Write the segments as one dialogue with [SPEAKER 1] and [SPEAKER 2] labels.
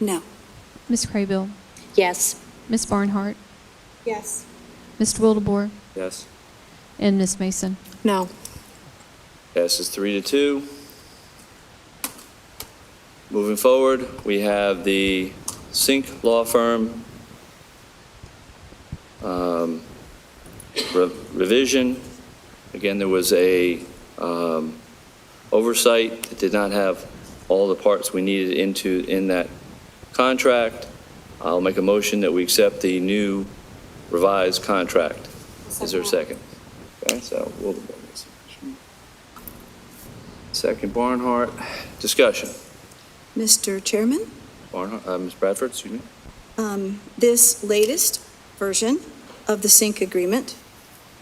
[SPEAKER 1] No.
[SPEAKER 2] Ms. Craybill,
[SPEAKER 3] Yes.
[SPEAKER 2] Ms. Barnhart,
[SPEAKER 1] Yes.
[SPEAKER 2] Mr. Wildebohr,
[SPEAKER 4] Yes.
[SPEAKER 2] and Ms. Mason.
[SPEAKER 1] No.
[SPEAKER 4] Passes three to two. Moving forward, we have the Sink Law Firm um, re- revision. Again, there was a um, oversight that did not have all the parts we needed into, in that contract. I'll make a motion that we accept the new revised contract. Is there a second? Okay, so will the board make some motion? Second Barnhart, discussion.
[SPEAKER 1] Mr. Chairman,
[SPEAKER 4] Barnhart, uh, Ms. Bradford, excuse me.
[SPEAKER 1] um, this latest version of the SYNC agreement,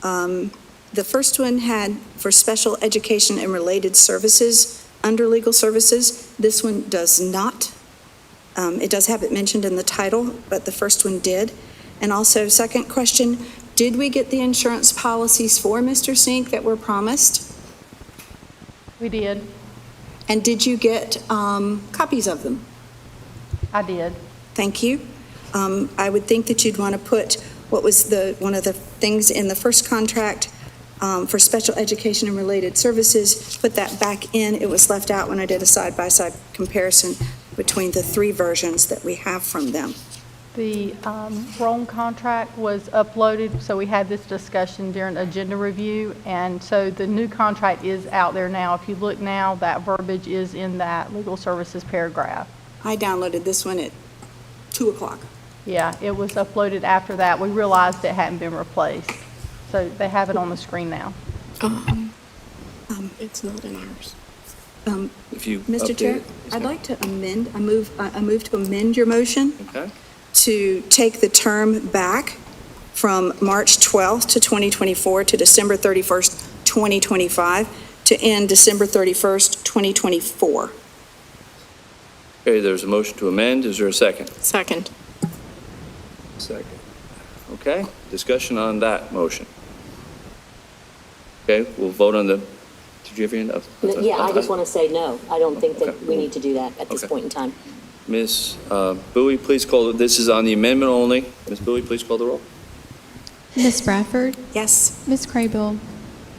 [SPEAKER 1] um, the first one had for special education and related services under legal services. This one does not. Um, It does have it mentioned in the title, but the first one did. And also, second question, did we get the insurance policies for Mr. SYNC that were promised?
[SPEAKER 5] We did.
[SPEAKER 1] And did you get um, copies of them?
[SPEAKER 5] I did.
[SPEAKER 1] Thank you. Um, I would think that you'd want to put what was the, one of the things in the first contract um, for special education and related services, put that back in. It was left out when I did a side-by-side comparison between the three versions that we have from them.
[SPEAKER 5] The um, Rome contract was uploaded, so we had this discussion during agenda review, and so the new contract is out there now. If you look now, that verbiage is in that legal services paragraph.
[SPEAKER 1] I downloaded this one at 2 o'clock.
[SPEAKER 5] Yeah, it was uploaded after that. We realized it hadn't been replaced, so they have it on the screen now.
[SPEAKER 1] It's not in ours. Um,
[SPEAKER 4] If you
[SPEAKER 1] Mr. Chair,
[SPEAKER 4] update it.
[SPEAKER 1] I'd like to amend, I move, I I move to amend your motion.
[SPEAKER 4] Okay,
[SPEAKER 1] to take the term back from March 12th to 2024 to December 31st, 2025, to end December 31st, 2024.
[SPEAKER 4] okay, there's a motion to amend, is there a second?
[SPEAKER 1] Second.
[SPEAKER 4] Second. Okay, discussion on that motion. Okay, we'll vote on the, did you have your hand up?
[SPEAKER 3] Yeah, I just want to say no. I don't think that
[SPEAKER 4] Okay.
[SPEAKER 3] we need to do that at this
[SPEAKER 4] Okay.
[SPEAKER 3] point in time.
[SPEAKER 4] Ms. uh, Bowie, please call, this is on the amendment only. Ms. Bowie, please call the roll.
[SPEAKER 2] Ms. Bradford,
[SPEAKER 1] Yes.
[SPEAKER 2] Ms. Craybill,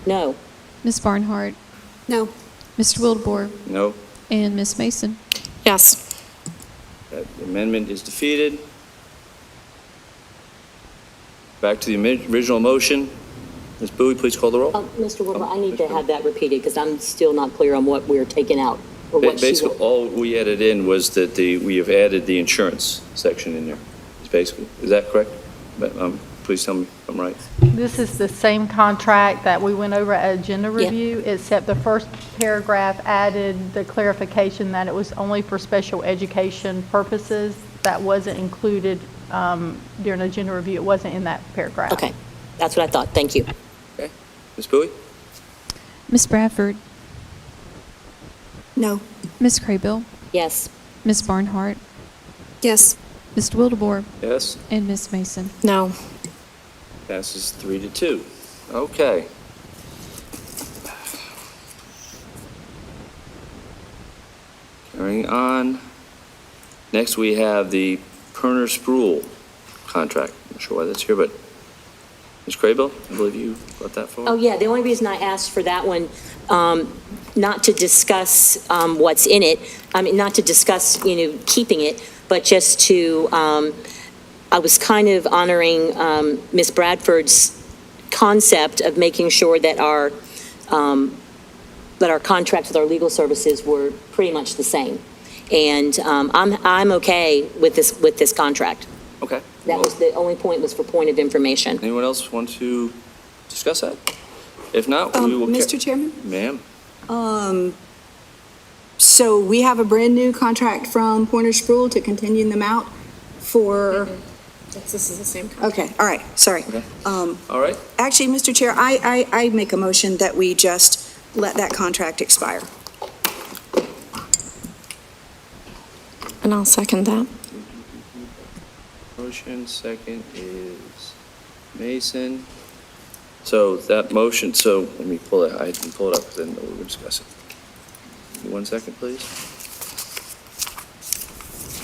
[SPEAKER 3] No.
[SPEAKER 2] Ms. Barnhart,
[SPEAKER 1] No.
[SPEAKER 2] Mr. Wildebohr,
[SPEAKER 4] No,
[SPEAKER 2] and Ms. Mason.
[SPEAKER 1] Yes.
[SPEAKER 4] That amendment is defeated. Back to the ami- original motion. Ms. Bowie, please call the roll.
[SPEAKER 3] Uh, Mr. Wilbur, I need
[SPEAKER 4] Mr.
[SPEAKER 3] to have that repeated because I'm still not clear on what we're taking out or
[SPEAKER 4] Ba-
[SPEAKER 3] what she
[SPEAKER 4] Basically,
[SPEAKER 3] will.
[SPEAKER 4] all we added in was that the, we have added the insurance section in there. It's basically, is that correct? But, um, Please tell me if I'm right.
[SPEAKER 5] This is the same contract that we went over at agenda review, except the first paragraph added the clarification that it was only for special education purposes. That wasn't included um, during agenda review. It wasn't in that paragraph.
[SPEAKER 3] Okay, that's what I thought. Thank you.
[SPEAKER 4] Okay. Ms. Bowie?
[SPEAKER 2] Ms. Bradford,
[SPEAKER 1] No.
[SPEAKER 2] Ms. Craybill,
[SPEAKER 3] Yes.
[SPEAKER 2] Ms. Barnhart,
[SPEAKER 1] Yes.
[SPEAKER 2] Mr. Wildebohr,
[SPEAKER 4] Yes.
[SPEAKER 2] and Ms. Mason.
[SPEAKER 1] No.
[SPEAKER 4] Passes three to two. Okay. Carrying on. Next, we have the Perner Spruill contract. I'm not sure why that's here, but Ms. Craybill, I believe you brought that forward.
[SPEAKER 3] Oh, yeah, the only reason I asked for that one, um, not to discuss, um, what's in it, I mean, not to discuss, you know, keeping it, but just to, um, I was kind of honoring, um, Ms. Bradford's concept of making sure that our, um, that our contracts with our legal services were pretty much the same. And, um, I'm, I'm okay with this, with this contract.
[SPEAKER 4] Okay.
[SPEAKER 3] That was, the only point was for point of information.
[SPEAKER 4] Anyone else want to discuss that? If not, we will.
[SPEAKER 1] Um,
[SPEAKER 4] ca-
[SPEAKER 1] Mr. Chairman?
[SPEAKER 4] Ma'am,
[SPEAKER 1] Um, so we have a brand-new contract from Pointer Spruill to continue them out for...
[SPEAKER 6] This is the same company.
[SPEAKER 1] Okay, all right, sorry.
[SPEAKER 4] Mm-hmm. Okay.
[SPEAKER 1] Um,
[SPEAKER 4] all right.
[SPEAKER 1] Actually, Mr. Chair, I, I, I make a motion that we just let that contract expire.
[SPEAKER 6] And I'll second that.
[SPEAKER 4] Motion second is Mason. So that motion, so let me pull it, I can pull it up, then we'll discuss it. One second, please.